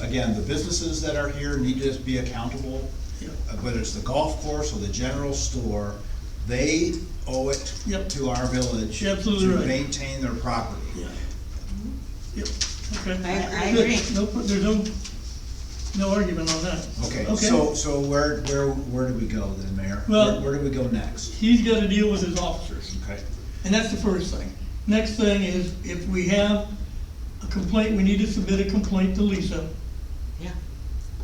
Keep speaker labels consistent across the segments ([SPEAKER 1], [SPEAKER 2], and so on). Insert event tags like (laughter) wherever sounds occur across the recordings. [SPEAKER 1] again, the businesses that are here need to be accountable.
[SPEAKER 2] Yeah.
[SPEAKER 1] Uh, Whether it's the golf course or the general store, they owe it
[SPEAKER 2] Yep.
[SPEAKER 1] to our village
[SPEAKER 2] You're absolutely
[SPEAKER 1] to
[SPEAKER 2] right.
[SPEAKER 1] maintain their property.
[SPEAKER 2] Yeah. Yep, okay.
[SPEAKER 3] I- I
[SPEAKER 2] Good.
[SPEAKER 3] agree.
[SPEAKER 2] (laughs) No, pro- there's no, no argument on that.
[SPEAKER 1] Okay, so,
[SPEAKER 2] Okay,
[SPEAKER 1] so where, where, where do we go then, Mayor?
[SPEAKER 2] Well-
[SPEAKER 1] Where where do we go next?
[SPEAKER 2] he's gotta deal with his officers,
[SPEAKER 1] Okay.
[SPEAKER 2] and that's the first thing. Next thing is, if we have a complaint, we need to submit a complaint to Lisa
[SPEAKER 3] Yeah,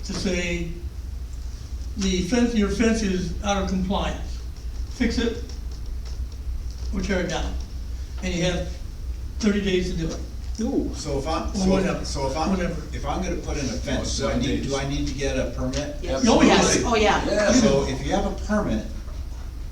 [SPEAKER 2] to say, the fence, your fence is out of compliance, fix it, or tear it down. And you have thirty days to do it.
[SPEAKER 4] Ooh.
[SPEAKER 1] So if I'm,
[SPEAKER 2] Or
[SPEAKER 1] so,
[SPEAKER 2] whatever,
[SPEAKER 1] so if I'm,
[SPEAKER 2] whatever.
[SPEAKER 1] if I'm gonna put in a fence, do I
[SPEAKER 4] seven
[SPEAKER 1] need, do
[SPEAKER 4] days.
[SPEAKER 1] I need to get a permit?
[SPEAKER 3] yes,
[SPEAKER 4] Absolutely.
[SPEAKER 3] yes, oh, yeah.
[SPEAKER 1] So if you have a permit,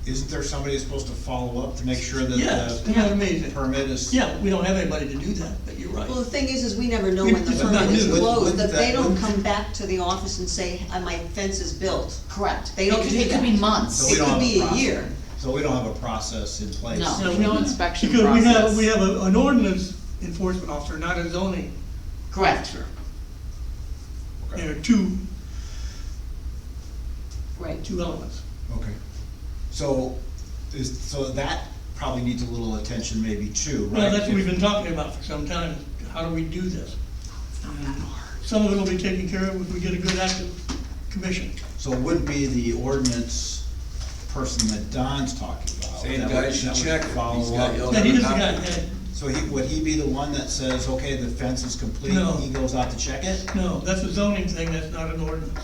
[SPEAKER 1] isn't there somebody that's supposed to follow up to make sure
[SPEAKER 2] Yes,
[SPEAKER 1] that
[SPEAKER 2] isn't that amazing?
[SPEAKER 1] the permit is?
[SPEAKER 2] Yeah, we don't have anybody to do that, but you're right.
[SPEAKER 3] Well, the thing is, is we never know when the
[SPEAKER 2] It's
[SPEAKER 3] permit
[SPEAKER 2] not
[SPEAKER 3] is
[SPEAKER 2] new.
[SPEAKER 3] closed,
[SPEAKER 1] Wouldn't
[SPEAKER 3] that they
[SPEAKER 1] that-
[SPEAKER 3] don't
[SPEAKER 1] wouldn't-
[SPEAKER 3] come back to the office and say, "Uh, my fence is built.
[SPEAKER 5] Correct.
[SPEAKER 3] They
[SPEAKER 5] It
[SPEAKER 3] don't
[SPEAKER 5] could-
[SPEAKER 3] do
[SPEAKER 5] It could be
[SPEAKER 3] that.
[SPEAKER 5] months.
[SPEAKER 1] So we
[SPEAKER 3] It
[SPEAKER 1] don't
[SPEAKER 3] could
[SPEAKER 1] have a
[SPEAKER 3] be a
[SPEAKER 1] process.
[SPEAKER 3] year.
[SPEAKER 1] So we don't have a process in place?
[SPEAKER 5] No.
[SPEAKER 2] Yeah, we
[SPEAKER 5] no
[SPEAKER 2] do.
[SPEAKER 5] inspection
[SPEAKER 2] Because we have,
[SPEAKER 5] process.
[SPEAKER 2] we have a- an ordinance enforcement officer, not a zoning
[SPEAKER 5] Correct.
[SPEAKER 2] officer.
[SPEAKER 1] Okay.
[SPEAKER 2] There are two,
[SPEAKER 3] Right.
[SPEAKER 2] two elements.
[SPEAKER 1] Okay. So, is, so that probably needs a little attention maybe too, right?
[SPEAKER 2] Well, that's what we've been talking about for some time, how do we do this? Some of it will be taken care of if we get a good active commission.
[SPEAKER 1] So it would be the ordinance person that Don's talking about.
[SPEAKER 4] Same
[SPEAKER 1] that
[SPEAKER 4] guy
[SPEAKER 1] would-
[SPEAKER 4] should
[SPEAKER 1] that would
[SPEAKER 4] check it.
[SPEAKER 1] follow
[SPEAKER 4] He's got
[SPEAKER 1] up.
[SPEAKER 4] yellow-
[SPEAKER 2] Now, he is the guy, that-
[SPEAKER 1] So he, would he be the one that says, okay, the fence is complete,
[SPEAKER 2] No.
[SPEAKER 1] he goes out to check it?
[SPEAKER 2] no, that's a zoning thing, that's not an ordinance.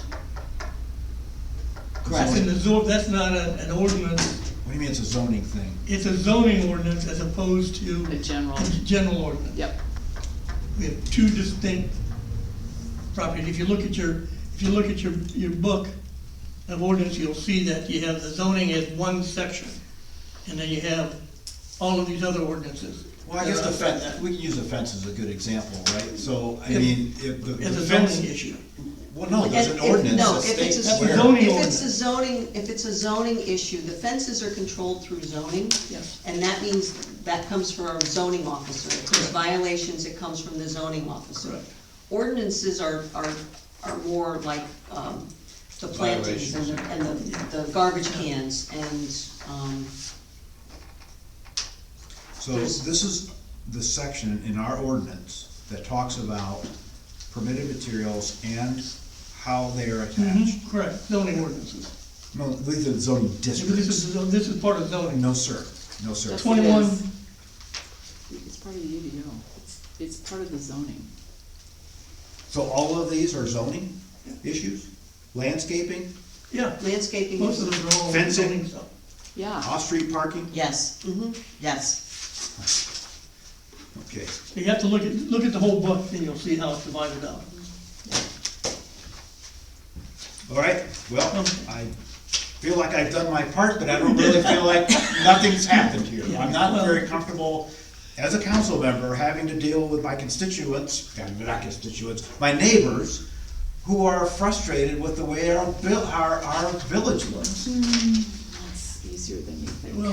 [SPEAKER 2] That's in
[SPEAKER 1] Zoning-
[SPEAKER 2] the zone, that's not a- an ordinance,
[SPEAKER 1] What do you mean it's a zoning thing?
[SPEAKER 2] it's a zoning ordinance as opposed to
[SPEAKER 5] The general,
[SPEAKER 2] a general ordinance.
[SPEAKER 5] yep.
[SPEAKER 2] We have two distinct properties. If you look at your, if you look at your, your book of ordinance, you'll see that you have the zoning as one section. And then you have all of these other ordinances.
[SPEAKER 1] Well, I guess the fence, we can use the fence as a good example, right? So, I
[SPEAKER 2] If-
[SPEAKER 1] mean, if the
[SPEAKER 2] It's
[SPEAKER 1] the
[SPEAKER 2] a
[SPEAKER 1] fence.
[SPEAKER 2] zoning issue.
[SPEAKER 1] Well, no, there's
[SPEAKER 3] And
[SPEAKER 1] an
[SPEAKER 3] if-
[SPEAKER 1] ordinance
[SPEAKER 3] no,
[SPEAKER 1] that
[SPEAKER 3] if it's a
[SPEAKER 1] states
[SPEAKER 2] That's a
[SPEAKER 1] where.
[SPEAKER 2] zoning
[SPEAKER 3] If it's a
[SPEAKER 2] ordinance.
[SPEAKER 3] zoning, if it's a zoning issue, the fences are controlled through zoning.
[SPEAKER 2] Yes.
[SPEAKER 3] And that means, that comes from our zoning officer. If there's
[SPEAKER 2] Correct.
[SPEAKER 3] violations, it comes from the zoning officer.
[SPEAKER 2] Correct.
[SPEAKER 3] Ordinances are, are, are more like, um, the plantings and the, and the, the garbage cans and, um,
[SPEAKER 1] So this is the section in our ordinance that talks about permitted materials and how they are attached.
[SPEAKER 2] Mhm, Correct, zoning ordinances.
[SPEAKER 1] No, these are zoning
[SPEAKER 2] Mm-hmm. This
[SPEAKER 1] districts.
[SPEAKER 2] is, this is part of zoning.
[SPEAKER 1] No, sir, no, sir.
[SPEAKER 5] That's-
[SPEAKER 2] Twenty-one,
[SPEAKER 5] Yes. It's part of the UDO. It's, it's part of the zoning.
[SPEAKER 1] So all of these are zoning issues? Landscaping,
[SPEAKER 2] yeah,
[SPEAKER 3] landscaping.
[SPEAKER 2] most of them are all
[SPEAKER 1] Fencing.
[SPEAKER 2] zoning stuff.
[SPEAKER 5] Yeah,
[SPEAKER 1] off-street parking?
[SPEAKER 5] yes,
[SPEAKER 3] Mhm.
[SPEAKER 5] yes.
[SPEAKER 1] Okay,
[SPEAKER 2] So You have to look at, look at the whole book, and you'll see how it's divided up.
[SPEAKER 1] all right, well,
[SPEAKER 2] Okay.
[SPEAKER 1] I feel like I've done my part, but I don't really feel like nothing's happened here. I'm not very comfortable as a council member having to deal with my constituents, and not constituents, my neighbors, who are frustrated with the way our, vil- our, our village looks.
[SPEAKER 2] Hmm.
[SPEAKER 5] It's easier than you think.
[SPEAKER 2] Well,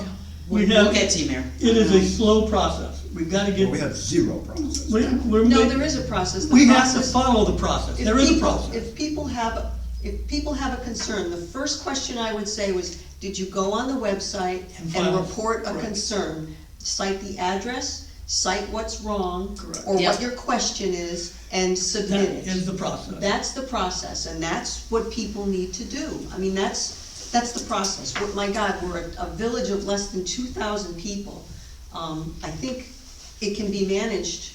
[SPEAKER 2] we
[SPEAKER 5] We'll
[SPEAKER 2] have,
[SPEAKER 5] we'll get
[SPEAKER 2] it
[SPEAKER 5] to you, Mayor.
[SPEAKER 2] is a slow process. We've gotta get,
[SPEAKER 1] We have zero process.
[SPEAKER 2] we- we're.
[SPEAKER 3] No,
[SPEAKER 2] ma-
[SPEAKER 3] there is a process. The
[SPEAKER 2] We have to
[SPEAKER 3] process-
[SPEAKER 2] follow the process,
[SPEAKER 3] If
[SPEAKER 2] there is a
[SPEAKER 3] people-
[SPEAKER 2] process.
[SPEAKER 3] If people have, if people have a concern, the first question I would say was, did you go on the website
[SPEAKER 2] And
[SPEAKER 3] and
[SPEAKER 2] file.
[SPEAKER 3] report a
[SPEAKER 2] Correct.
[SPEAKER 3] concern? Cite the address, cite what's wrong,
[SPEAKER 2] Correct.
[SPEAKER 3] or what
[SPEAKER 5] Yep.
[SPEAKER 3] your question is, and submit
[SPEAKER 2] That
[SPEAKER 3] it.
[SPEAKER 2] is the process.
[SPEAKER 3] That's the process, and that's what people need to do. I mean, that's, that's the process. We're- My God, we're a- a village of less than two thousand people. Um, I think it can be managed.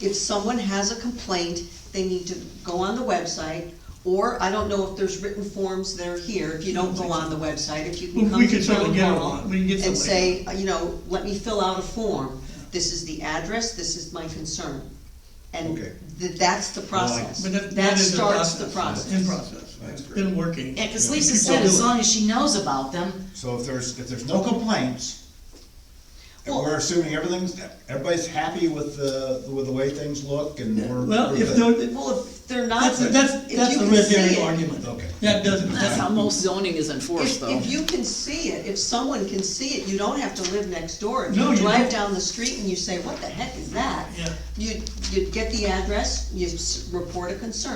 [SPEAKER 3] If someone has a complaint, they need to go on the website, or I don't know if there's written forms that are here, if you don't go on the website, if you
[SPEAKER 2] Well,
[SPEAKER 3] can come
[SPEAKER 2] we
[SPEAKER 3] to
[SPEAKER 2] can certainly
[SPEAKER 3] town
[SPEAKER 2] get
[SPEAKER 3] hall
[SPEAKER 2] them on. We can get
[SPEAKER 3] And
[SPEAKER 2] somebody.
[SPEAKER 3] say, uh, you know, let me fill out a form. This is the address, this is my concern. And
[SPEAKER 1] Okay.
[SPEAKER 3] th- that's the process.
[SPEAKER 2] But that, that
[SPEAKER 3] That
[SPEAKER 2] is the
[SPEAKER 3] starts the
[SPEAKER 2] process, in
[SPEAKER 3] process.
[SPEAKER 2] process,
[SPEAKER 1] That's
[SPEAKER 2] it's
[SPEAKER 1] great.
[SPEAKER 2] been working.
[SPEAKER 5] Yeah, cause
[SPEAKER 2] And
[SPEAKER 5] Lisa
[SPEAKER 2] people
[SPEAKER 5] said
[SPEAKER 2] do
[SPEAKER 5] as
[SPEAKER 2] it.
[SPEAKER 5] long as she knows about them,
[SPEAKER 1] So if there's, if there's no complaints, and
[SPEAKER 3] Well-
[SPEAKER 1] we're assuming everything's, everybody's happy with the, with the way things look and we're.
[SPEAKER 2] Well,
[SPEAKER 1] we're
[SPEAKER 2] if
[SPEAKER 1] good.
[SPEAKER 2] there,
[SPEAKER 3] Well, if they're not,
[SPEAKER 2] that's,
[SPEAKER 3] if
[SPEAKER 2] that's,
[SPEAKER 3] you
[SPEAKER 2] that's the
[SPEAKER 3] can
[SPEAKER 2] red
[SPEAKER 3] see
[SPEAKER 2] herring
[SPEAKER 3] it-
[SPEAKER 2] argument.
[SPEAKER 1] Okay.
[SPEAKER 2] That doesn't,
[SPEAKER 5] that's how most zoning is enforced
[SPEAKER 3] uh, If,
[SPEAKER 5] though.
[SPEAKER 3] if you can see it, if someone can see it, you don't have to live next door. If
[SPEAKER 2] No,
[SPEAKER 3] you
[SPEAKER 2] you
[SPEAKER 3] drive
[SPEAKER 2] don't.
[SPEAKER 3] down the street and you say, what the heck is that?
[SPEAKER 2] Yeah.
[SPEAKER 3] You, you get the address, you s- report a concern.